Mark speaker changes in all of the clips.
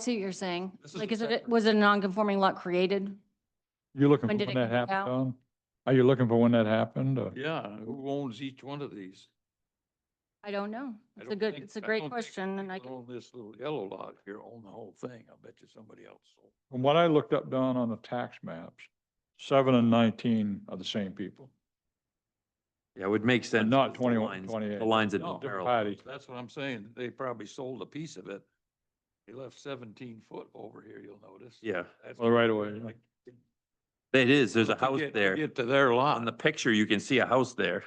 Speaker 1: See what you're saying.
Speaker 2: This is
Speaker 1: Like,
Speaker 2: the
Speaker 1: is it,
Speaker 2: separate-
Speaker 1: was it a non-conforming lot created?
Speaker 3: You're looking for
Speaker 1: When
Speaker 3: when
Speaker 1: did it
Speaker 3: that
Speaker 1: come
Speaker 3: happened,
Speaker 1: about?
Speaker 3: Tom? Are you looking for when that happened? or-
Speaker 2: Yeah, who owns each one of these?
Speaker 1: I don't know.
Speaker 2: I
Speaker 1: It's a
Speaker 2: don't
Speaker 1: good,
Speaker 2: think-
Speaker 1: it's a
Speaker 2: I
Speaker 1: great
Speaker 2: don't think
Speaker 1: question and I
Speaker 2: people
Speaker 1: can,
Speaker 2: Own this little yellow lot here, own the whole thing. I bet you somebody else sold.
Speaker 3: From what I looked up, Don, on the tax maps, seven and nineteen are the same people.
Speaker 4: Yeah, it would make sense.
Speaker 3: not
Speaker 4: because the
Speaker 3: 21,
Speaker 4: lines-
Speaker 3: 28.
Speaker 4: The lines that
Speaker 2: No,
Speaker 4: don't
Speaker 2: they're
Speaker 4: parallel.
Speaker 3: Patty,
Speaker 2: That's what I'm saying. They probably sold a piece of it. They left seventeen foot over here, you'll notice.
Speaker 4: Yeah,
Speaker 2: That's
Speaker 3: Well, right away, yeah.
Speaker 2: like-
Speaker 4: it is. There's a
Speaker 2: But to
Speaker 4: house
Speaker 2: get- to
Speaker 4: there.
Speaker 2: Get to their
Speaker 4: On the
Speaker 2: lot.
Speaker 4: picture, you can see a house there.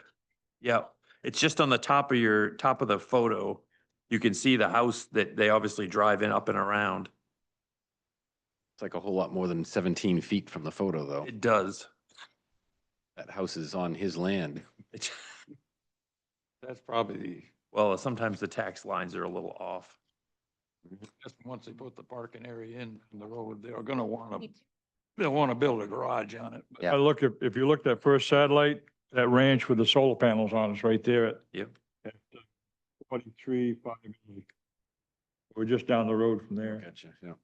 Speaker 4: Yeah, it's just on the top of your, top of the photo. You can see the house that they obviously drive in up and around.
Speaker 5: It's like a whole lot more than seventeen feet from the photo, though.
Speaker 4: It does.
Speaker 5: That house is on his land.
Speaker 4: It's-
Speaker 2: That's probably the,
Speaker 4: Well, sometimes the tax lines are a little off.
Speaker 3: Mhm.
Speaker 2: just once they put the parking area in from the road, they're gonna wanna, they'll wanna build a garage on it. but
Speaker 5: Yeah.
Speaker 3: I look, if, if you look at first satellite, that ranch with the solar panels on it's right there at.
Speaker 4: Yep.
Speaker 3: at, uh, Forty-three, five. eight. We're just down the road from there.
Speaker 5: Gotcha, yeah.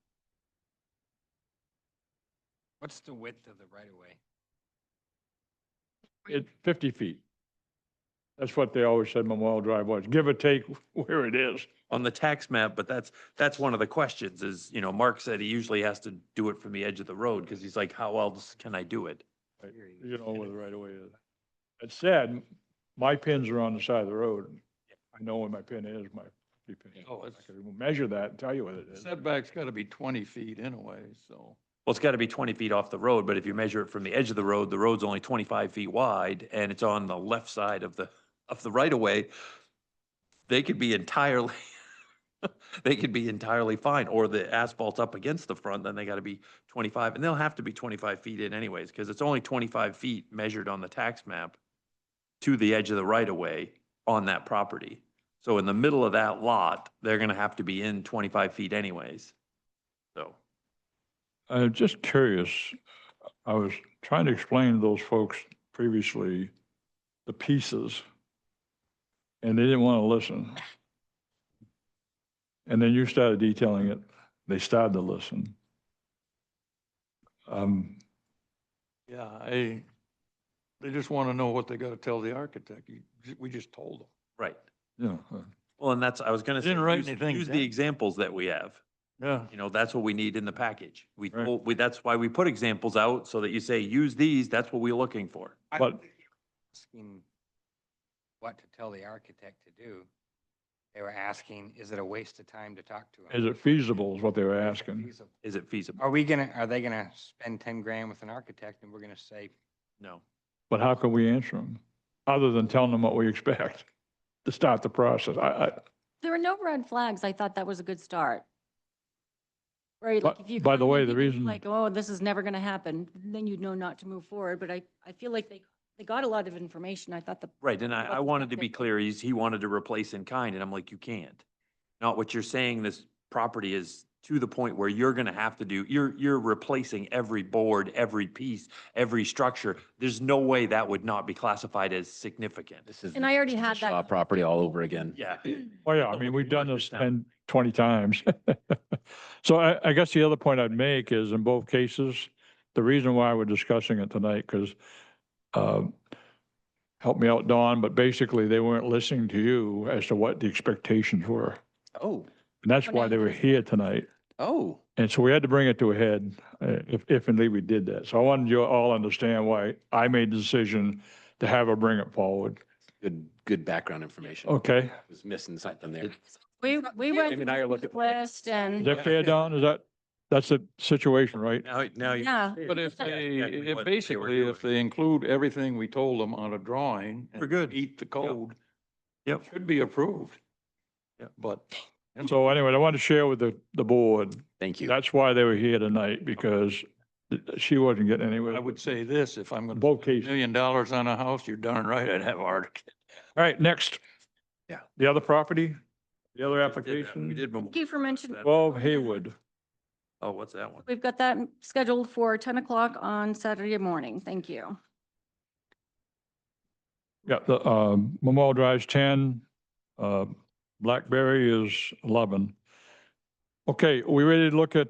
Speaker 6: What's the width of the right of way?
Speaker 3: It, fifty feet. That's what they always said Memorial Drive was, give or take where it is.
Speaker 4: on the tax map, but that's, that's one of the questions is, you know, Mark said he usually has to do it from the edge of the road because he's like, how else can I do it?
Speaker 3: Right.
Speaker 6: Here you
Speaker 3: You know where the right of way is. That said, my pins are on the side of the road. I know where my pin is, my key pin.
Speaker 2: Oh, it's-
Speaker 3: I can measure that and tell you what it is.
Speaker 2: Setback's gotta be twenty feet anyway, so.
Speaker 4: Well, it's got to be 20 feet off the road, but if you measure it from the edge of the road, the road's only 25 feet wide and it's on the left side of the, of the right of way. They could be entirely, they could be entirely fine, or the asphalt's up against the front, then they got to be 25, and they'll have to be 25 feet in anyways, because it's only 25 feet measured on the tax map to the edge of the right of way on that property. So in the middle of that lot, they're going to have to be in 25 feet anyways. So.
Speaker 3: I'm just curious, I was trying to explain to those folks previously the pieces, and they didn't want to listen. And then you started detailing it, they started to listen. Um,
Speaker 2: Yeah, I, they just want to know what they got to tell the architect. You- We just told them.
Speaker 4: Right.
Speaker 3: yeah, uh,
Speaker 4: Well, and that's, I was gonna say.
Speaker 2: Didn't write
Speaker 4: use-
Speaker 2: anything
Speaker 4: Use
Speaker 2: down.
Speaker 4: the examples that we have.
Speaker 2: Yeah.
Speaker 4: You know, that's what we need in the package. We,
Speaker 3: Right.
Speaker 4: told- we, that's why we put examples out so that you say, use these, that's what we're looking for.
Speaker 6: I
Speaker 3: But-
Speaker 6: don't think they were Asking what to tell the architect to do. They were asking, is it a waste of time to talk to him?
Speaker 3: Is it feasible is what they were asking?
Speaker 6: Feasible.
Speaker 4: Is it feasible?
Speaker 6: Are we gonna, are they gonna spend ten grand with an architect and we're gonna say,
Speaker 4: No.
Speaker 3: But how can we answer them, other than telling them what we expect to start the process? I, I,
Speaker 1: there were no red flags. I thought that was a good start. Right?
Speaker 3: But-
Speaker 1: like, if you
Speaker 3: by the
Speaker 1: come in
Speaker 3: way, the
Speaker 1: thinking
Speaker 3: reason-
Speaker 1: Like, oh, this is never going to happen, then you'd know not to move forward. But I, I feel like they, they got a lot of information. I thought the,
Speaker 4: Right, and I,
Speaker 1: Well,
Speaker 4: I wanted to
Speaker 1: okay.
Speaker 4: be clear, he's, he wanted to replace in kind, and I'm like, you can't. Not what you're saying, this property is to the point where you're gonna have to do, you're, you're replacing every board, every piece, every structure. There's no way that would not be classified as significant.
Speaker 5: This is.
Speaker 1: And
Speaker 5: the
Speaker 1: I already had that
Speaker 5: Shaw Property all over again.
Speaker 4: Yeah.
Speaker 3: Well, Oh, yeah, I mean,
Speaker 4: Well, we
Speaker 3: we've done
Speaker 4: can work
Speaker 3: this
Speaker 4: this out.
Speaker 3: 10, 20 times. So I, I guess the other point I'd make is in both cases, the reason why we're discussing it tonight, because help me out, Don, but basically they weren't listening to you as to what the expectations were.
Speaker 5: Oh,
Speaker 3: And that's
Speaker 1: Well,
Speaker 3: why
Speaker 1: now
Speaker 3: they
Speaker 1: you
Speaker 3: were
Speaker 1: guys-
Speaker 3: here tonight.
Speaker 5: oh.
Speaker 3: And so we had to bring it to a head, uh, if, if and we did that. So I wanted you all to understand why I made the decision to have her bring it forward.
Speaker 5: Good, good background information.
Speaker 3: Okay,
Speaker 5: I Was missing something there.
Speaker 1: we, we went
Speaker 5: Jamie and I are
Speaker 1: through
Speaker 5: looking-
Speaker 1: the list
Speaker 3: is
Speaker 1: and,
Speaker 3: that fair, Don? Is that, that's the situation, right?
Speaker 4: Now, now you.
Speaker 1: yeah,
Speaker 2: But if
Speaker 4: Yeah,
Speaker 2: they,
Speaker 4: exactly
Speaker 2: if
Speaker 4: what they were
Speaker 2: basically, if
Speaker 4: doing.
Speaker 2: they include everything we told them on a drawing. and
Speaker 4: We're good.
Speaker 2: Eat the code.
Speaker 4: Yep.
Speaker 2: Should be approved.
Speaker 4: Yeah.
Speaker 2: But.
Speaker 3: So anyway, I wanted to share with the, the board,
Speaker 5: Thank you.
Speaker 3: that's why they were here tonight, because th- she wasn't getting anywhere.
Speaker 2: I would say this, if I'm going to.
Speaker 3: Both cases.
Speaker 2: Million dollars on a house, you're darn right I'd have architect.
Speaker 3: All right, next.
Speaker 5: Yeah.
Speaker 3: The other property, the other
Speaker 4: We did that. We
Speaker 3: application,
Speaker 4: did. Memorial
Speaker 1: Thank you for
Speaker 4: Drive.
Speaker 1: mentioning-
Speaker 4: That-
Speaker 3: twelve Haywood.
Speaker 4: Oh, what's that one?
Speaker 1: we've got that scheduled for 10 o'clock on Saturday morning. Thank you.
Speaker 3: Yeah, the, um, Memorial Drive's ten, uh, Blackberry is eleven. Okay, we ready to look at